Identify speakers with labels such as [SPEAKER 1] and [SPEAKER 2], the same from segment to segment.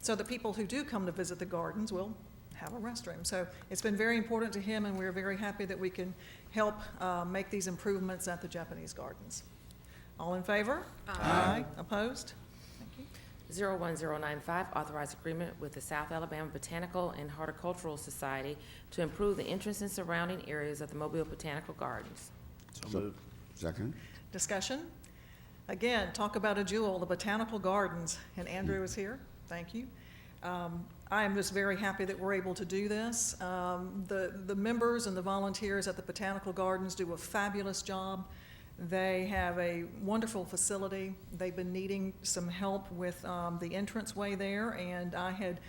[SPEAKER 1] So the people who do come to visit the gardens will have a restroom. So it's been very important to him, and we're very happy that we can help uh, make these improvements at the Japanese gardens. All in favor? Aye. Opposed? Thank you.
[SPEAKER 2] 01095, authorized agreement with the South Alabama Botanical and Horticultural Society to improve the entrance and surrounding areas of the Mobile Botanical Gardens.
[SPEAKER 3] So moved. Second?
[SPEAKER 1] Discussion? Again, talk about a jewel, the Botanical Gardens, and Andrew is here. Thank you. Um, I am just very happy that we're able to do this. Um, The, the members and the volunteers at the Botanical Gardens do a fabulous job. They have a wonderful facility. They've been needing some help with um, the entranceway there, and I had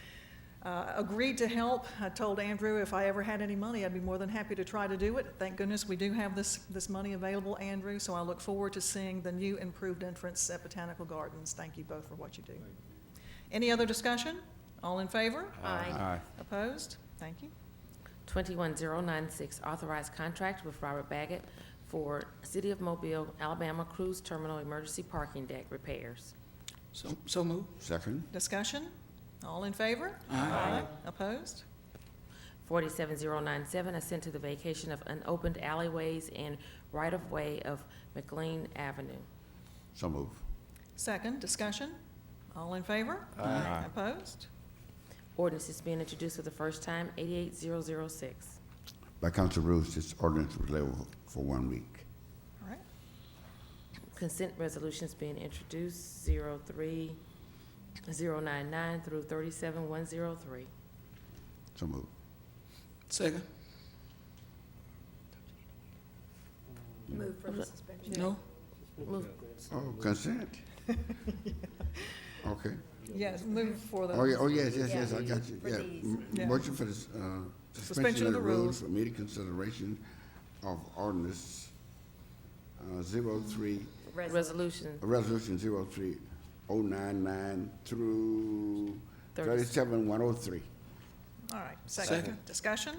[SPEAKER 1] uh, agreed to help. I told Andrew if I ever had any money, I'd be more than happy to try to do it. Thank goodness we do have this, this money available, Andrew, so I look forward to seeing the new improved entrance at Botanical Gardens. Thank you both for what you do. Any other discussion? All in favor?
[SPEAKER 3] Aye.
[SPEAKER 1] Opposed? Thank you.
[SPEAKER 2] 21096, authorized contract with Robert Baggett for City of Mobile, Alabama Cruise Terminal Emergency Parking Deck repairs.
[SPEAKER 4] So, so moved.
[SPEAKER 3] Second?
[SPEAKER 1] Discussion? All in favor? Aye. Opposed?
[SPEAKER 2] 47097, assent to the vacation of unopened alleyways and right-of-way of McLean Avenue.
[SPEAKER 3] So moved.
[SPEAKER 1] Second, discussion? All in favor? Aye. Opposed?
[SPEAKER 2] Ordinance is being introduced for the first time, 88006.
[SPEAKER 3] By council rules, this ordinance was labeled for one week.
[SPEAKER 1] All right.
[SPEAKER 2] Consent resolutions being introduced, 03099 through 37103.
[SPEAKER 3] So moved.
[SPEAKER 4] Second?
[SPEAKER 5] Move for the suspension.
[SPEAKER 4] No?
[SPEAKER 2] Move-
[SPEAKER 3] Oh, consent? Okay.
[SPEAKER 1] Yes, move for the.
[SPEAKER 3] Oh, yeah, oh, yes, yes, yes, I
[SPEAKER 5] Yeah,
[SPEAKER 3] got you,
[SPEAKER 5] for
[SPEAKER 3] yeah.
[SPEAKER 5] these.
[SPEAKER 3] M-
[SPEAKER 1] Yeah.
[SPEAKER 3] Motion for the, s- uh, suspension of the rules for immediate consideration of ordinance, uh, zero-three,
[SPEAKER 2] Resolution,
[SPEAKER 3] resolution zero-three oh nine-nine through
[SPEAKER 2] Thirty-
[SPEAKER 3] thirty-seven one oh three.
[SPEAKER 1] All right, second,
[SPEAKER 4] Second.
[SPEAKER 1] discussion,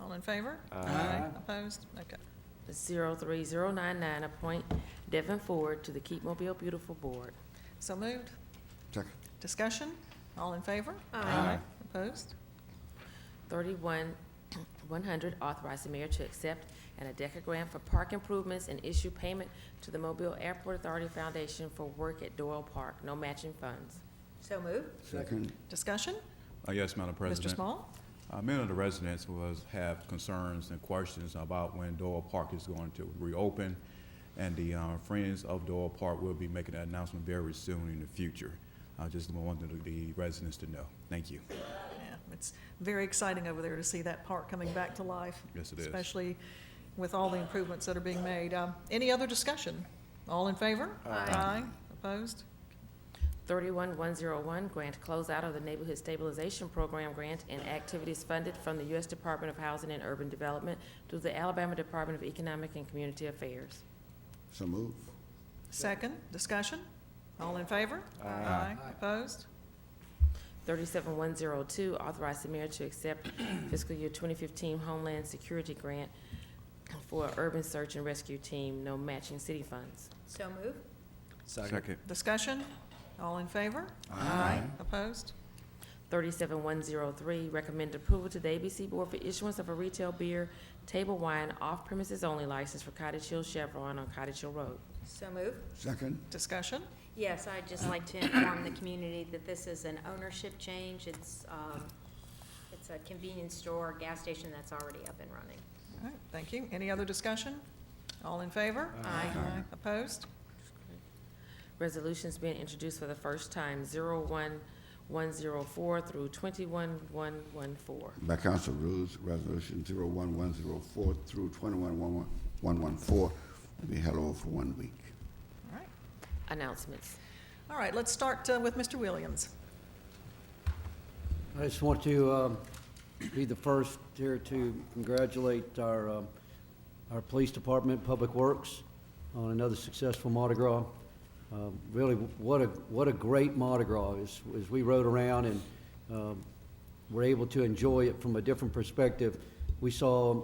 [SPEAKER 1] all in favor? Opposed? Okay.
[SPEAKER 2] 03099, appoint Devin Ford to the Keep Mobile Beautiful Board.
[SPEAKER 1] So moved,
[SPEAKER 3] Second,
[SPEAKER 1] discussion, all in favor? Aye. Opposed?
[SPEAKER 2] 31100, authorize the mayor to accept an ADECA grant for park improvements and issue payment to the Mobile Airport Authority Foundation for work at Doyle Park, no matching funds.
[SPEAKER 5] So move.
[SPEAKER 3] second,
[SPEAKER 1] Discussion,
[SPEAKER 6] Uh, Yes, Madam
[SPEAKER 1] Mr.
[SPEAKER 6] President.
[SPEAKER 1] Small?
[SPEAKER 6] Uh, Many of the residents was, have concerns and questions about when Doyle Park is going to reopen, and the uh, Friends of Doyle Park will be making an announcement very soon in the future. I just wanted the residents to know. Thank you.
[SPEAKER 1] Yeah, it's very exciting over there to see that park coming back to life.
[SPEAKER 6] Yes, it is.
[SPEAKER 1] Especially with all the improvements that are being made. Um, Any other discussion? All in favor? Aye. Opposed?
[SPEAKER 2] 31101, grant closeout of the Neighborhood Stabilization Program grant and activities funded from the U.S. Department of Housing and Urban Development through the Alabama Department of Economic and Community Affairs.
[SPEAKER 3] so moved.
[SPEAKER 1] Second, discussion, all in favor? Aye. Opposed?
[SPEAKER 2] 37102, authorize the mayor to accept fiscal year 2015 Homeland Security Grant for Urban Search and Rescue Team, no matching city funds.
[SPEAKER 5] So move.
[SPEAKER 6] Second.
[SPEAKER 1] Discussion, all in favor? Aye. Opposed?
[SPEAKER 2] 37103, recommend approval to the ABC Board for issuance of a retail beer, table wine, off-premises only license for Cottage Hill Chevron on Cottage Hill Road.
[SPEAKER 5] So move.
[SPEAKER 3] Second,
[SPEAKER 1] Discussion,
[SPEAKER 5] Yes, I'd just like to inform the community that this is an ownership change. It's, um, it's a convenience store, gas station that's already up and running.
[SPEAKER 1] all right, thank you. Any other discussion? All in favor? Aye. Opposed?
[SPEAKER 2] Resolutions being introduced for the first time, 01104 through 21114.
[SPEAKER 3] by council rules, resolution zero one one zero four through twenty-one one one, one one four will be held over for one week.
[SPEAKER 1] All right,
[SPEAKER 2] Announcements.
[SPEAKER 1] all right, let's start uh, with Mr. Williams.
[SPEAKER 7] I just want to um, be the first here to congratulate our, um, our police department, Public Works, on another successful Mardi Gras. Um, Really, what a, what a great Mardi Gras, as, as we rode around and um, were able to enjoy it from a different perspective. We saw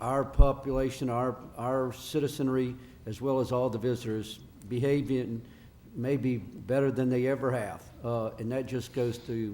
[SPEAKER 7] our population, our, our citizenry, as well as all the visitors behaving maybe better than they ever have. Uh, And that just goes to